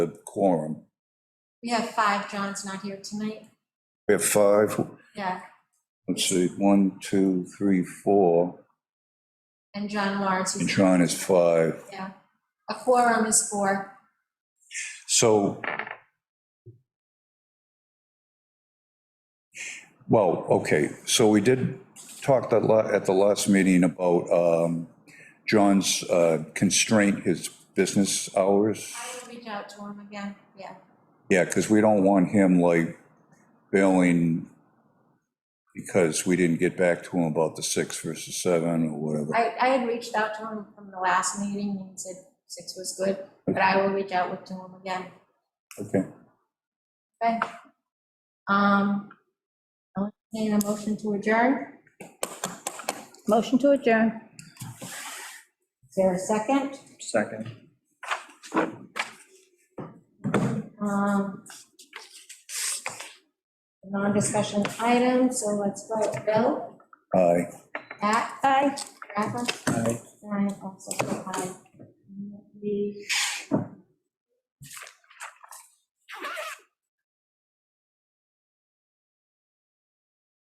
the quorum. We have five, John's not here tonight. We have five, Yeah, let's see, one, two, three, four, and John Lawrence and is, Sean is five. yeah. A quorum is four. So, well, okay, so we did talk that la- at the last meeting about um, John's uh, constraint, his business hours. I will reach out to him again, yeah. Yeah, because we don't want him like bailing because we didn't get back to him about the six versus seven or whatever. I, I had reached out to him from the last meeting, and he said six was good, but I will reach out with- to him again. Okay. Okay. Um, I'll entertain a motion to adjourn. Motion to adjourn. Is there a second? Second. Um, Non-discussion item, so let's vote. Bill? Aye. Pat? Aye. Rafa? Aye. And I also vote aye. We